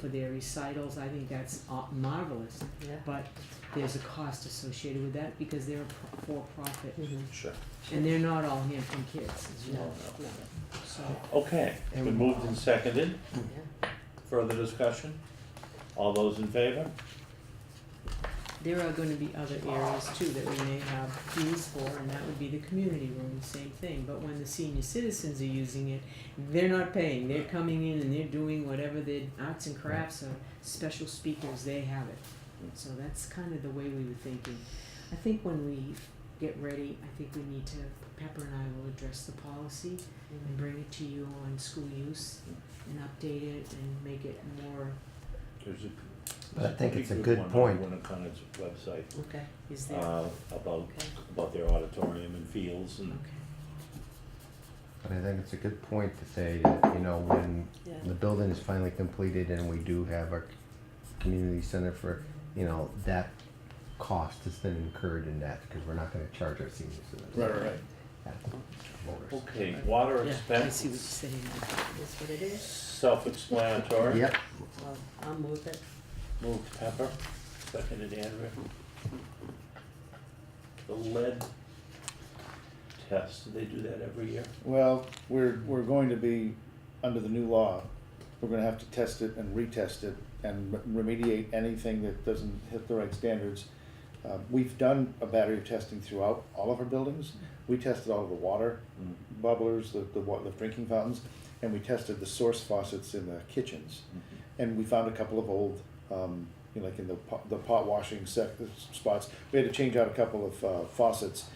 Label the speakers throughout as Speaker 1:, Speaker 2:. Speaker 1: for their recitals, I think that's uh, marvelous.
Speaker 2: Yeah.
Speaker 1: But there's a cost associated with that because they're a pro- for-profit,
Speaker 2: Mhm.
Speaker 3: Sure.
Speaker 1: and they're not all Hampton kids, as you
Speaker 2: No,
Speaker 1: know,
Speaker 2: no.
Speaker 1: so.
Speaker 3: Okay, it's been moved and seconded.
Speaker 2: Yeah.
Speaker 3: Further discussion? All those in favor?
Speaker 1: There are gonna be other areas too that we may have fees for, and that would be the community room, same thing, but when the senior citizens are using it, they're not paying, they're coming in and they're doing whatever their arts and crafts or special speakers, they have it. So that's kind of the way we were thinking. I think when we get ready, I think we need to, Pepper and I will address the policy and bring it to you on school use and update it and make it more,
Speaker 3: There's a-
Speaker 4: But I think
Speaker 3: there's
Speaker 4: it's a good
Speaker 3: one on
Speaker 4: point.
Speaker 3: Winnicott's website,
Speaker 2: Okay,
Speaker 1: is there,
Speaker 3: uh, about,
Speaker 2: okay.
Speaker 3: about their auditorium and fields and,
Speaker 1: okay.
Speaker 4: But I think it's a good point to say that, you know, when
Speaker 2: Yeah.
Speaker 4: the building is finally completed and we do have our community center for, you know, that cost has been incurred in that because we're not gonna charge our seniors.
Speaker 5: Right, right, right.
Speaker 4: right.
Speaker 3: okay, water
Speaker 1: Yeah, I see what you're
Speaker 3: expense,
Speaker 1: saying.
Speaker 2: That's what it is.
Speaker 3: self-explanatory.
Speaker 4: Yep,
Speaker 2: Well, I'll move it.
Speaker 3: Moved Pepper, seconded Andrew. The lead test, do they do that every year?
Speaker 5: Well, we're, we're going to be, under the new law, we're gonna have to test it and retest it and re- remediate anything that doesn't hit the right standards. Uh, we've done a battery of testing throughout all of our buildings. We tested all of the water
Speaker 3: Mm.
Speaker 5: bubblers, the, the wa- the drinking fountains, and we tested the source faucets in the kitchens. And we found a couple of old, um, you know, like in the pot, the pot washing sec- uh, spots, we had to change out a couple of uh, faucets.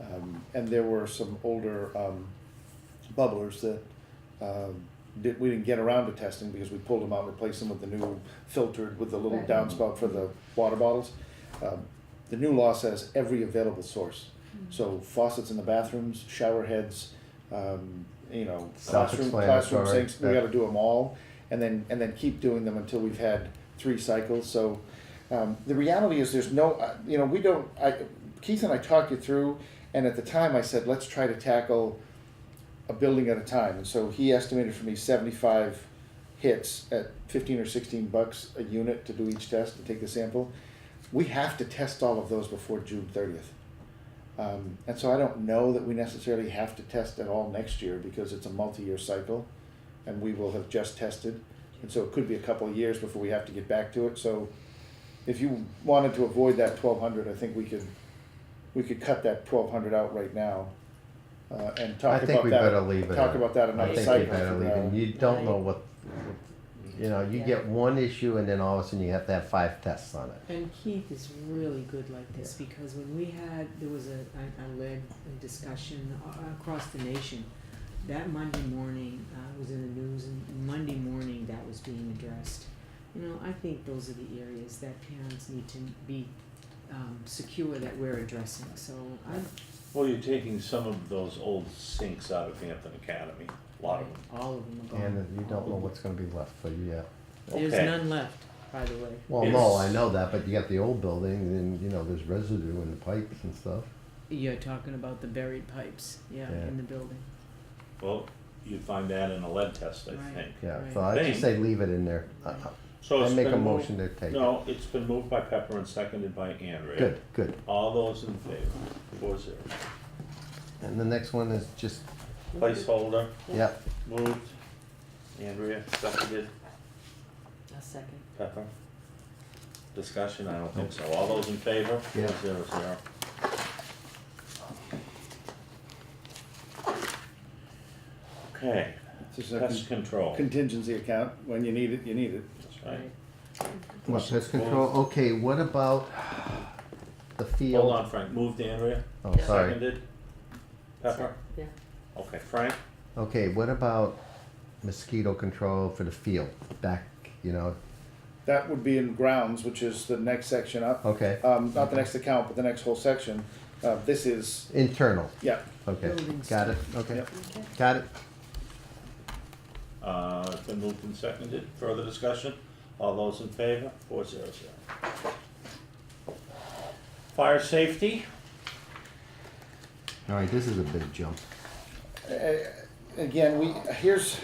Speaker 5: Um, and there were some older, um, bubblers that um, did, we didn't get around to testing because we pulled them out and replaced them with the new filtered with the little
Speaker 2: Right.
Speaker 5: downspout for the water bottles. Um, the new law says every available source. So faucets in the bathrooms, shower heads, um, you know, classroom, classroom
Speaker 4: Self-explanatory,
Speaker 5: sinks, we
Speaker 4: yeah.
Speaker 5: gotta do them all. And then, and then keep doing them until we've had three cycles, so, um, the reality is there's no, uh, you know, we don't, I, Keith and I talked you through, and at the time I said, let's try to tackle a building at a time, and so he estimated for me seventy-five hits at fifteen or sixteen bucks a unit to do each test, to take the sample. We have to test all of those before June thirtieth. Um, and so I don't know that we necessarily have to test at all next year, because it's a multi-year cycle, and we will have just tested. And so it could be a couple of years before we have to get back to it, so if you wanted to avoid that twelve hundred, I think we could, we could cut that twelve hundred out right now, uh, and
Speaker 4: I
Speaker 5: talk
Speaker 4: think
Speaker 5: about
Speaker 4: we
Speaker 5: that
Speaker 4: better leave it.
Speaker 5: talk
Speaker 4: at-
Speaker 5: about that another
Speaker 4: I
Speaker 5: cycle
Speaker 4: think we better
Speaker 5: from
Speaker 4: leave it.
Speaker 5: now.
Speaker 4: You don't know
Speaker 2: Right.
Speaker 4: what, you know, you
Speaker 2: Yeah.
Speaker 4: get one issue and then all of a sudden you have to have five tests on it.
Speaker 1: And Keith is really good like this because when we had, there was a, I, I led a discussion a- across the nation. That Monday morning, uh, it was in the news and Monday morning that was being addressed. You know, I think those are the areas that parents need to be, um, secure that we're addressing, so I,
Speaker 3: Well, you're taking some of those old sinks out of Hampton Academy, a lot of them.
Speaker 1: all of them are gone.
Speaker 5: Um,
Speaker 4: And you don't know what's gonna be left for you, yeah.
Speaker 1: There's
Speaker 3: Okay.
Speaker 1: none left, by the way.
Speaker 4: Well, no,
Speaker 3: It's-
Speaker 4: I know that, but you got the old building and, you know, there's residue in the pipes and stuff.
Speaker 1: You're talking about the buried pipes, yeah,
Speaker 4: Yeah.
Speaker 1: in the building,
Speaker 3: Well, you find that in a lead test, I
Speaker 1: Right.
Speaker 3: think.
Speaker 4: Yeah, so
Speaker 1: Right.
Speaker 4: I just say leave it in there. I- I-
Speaker 3: So
Speaker 4: I
Speaker 3: it's
Speaker 4: make a
Speaker 3: been moved-
Speaker 4: motion to take it.
Speaker 3: Oh, No, it's been moved by Pepper and seconded by Andrea.
Speaker 4: Good, good.
Speaker 3: All those in favor, four zero.
Speaker 4: And the next one is just,
Speaker 3: Placeholder,
Speaker 4: yeah,
Speaker 3: moved. Andrea, seconded.
Speaker 2: A second.
Speaker 3: Pepper? Discussion, I don't think so. All those in favor?
Speaker 4: Yeah.
Speaker 3: Zero, zero. Okay,
Speaker 5: It's just
Speaker 3: pest
Speaker 5: a
Speaker 3: control,
Speaker 5: contingency account, when you need it, you need it.
Speaker 3: that's right.
Speaker 4: what, pest control, okay, what about the field?
Speaker 3: Hold on, Frank, moved Andrea,
Speaker 4: Oh, sorry.
Speaker 3: seconded. Pepper?
Speaker 2: Yeah.
Speaker 3: Okay, Frank?
Speaker 4: Okay, what about mosquito control for the field? Back, you know,
Speaker 5: That would be in grounds, which is the next section up,
Speaker 4: okay,
Speaker 5: um, not the next account, but the next whole section. Uh, this is,
Speaker 4: internal,
Speaker 5: yeah,
Speaker 4: okay,
Speaker 1: Building
Speaker 4: got it, okay,
Speaker 5: Yep.
Speaker 2: Okay.
Speaker 4: got it?
Speaker 3: Uh, it's been moved and seconded. Further discussion? All those in favor? Four zero zero. Fire safety?
Speaker 4: All right, this is a big jump.
Speaker 5: again, we, here's,